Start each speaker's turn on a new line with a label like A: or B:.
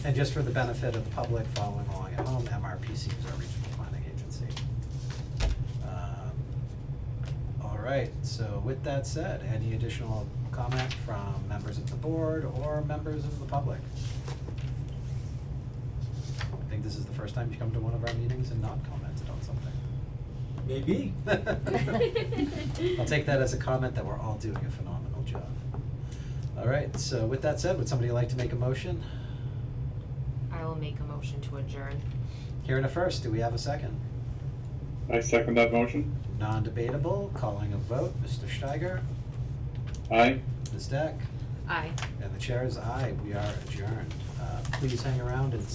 A: And just for the benefit of the public following along at home, MRPC is our regional planning agency. Um, All right, so with that said, any additional comment from members of the board or members of the public? I think this is the first time you've come to one of our meetings and not commented on
B: Maybe.
A: something. I'll take that as a comment that we're all doing a phenomenal job. All right, so with that said, would somebody like to make a motion?
C: I will make a motion to adjourn.
A: Here in a first, do we have a second?
D: I second that motion.
A: Non-debatable, calling a vote, Mr. Steiger,
D: Aye.
A: Ms. Deck,
C: Aye.
A: and the chair is aye, we are adjourned. Uh, Please hang around and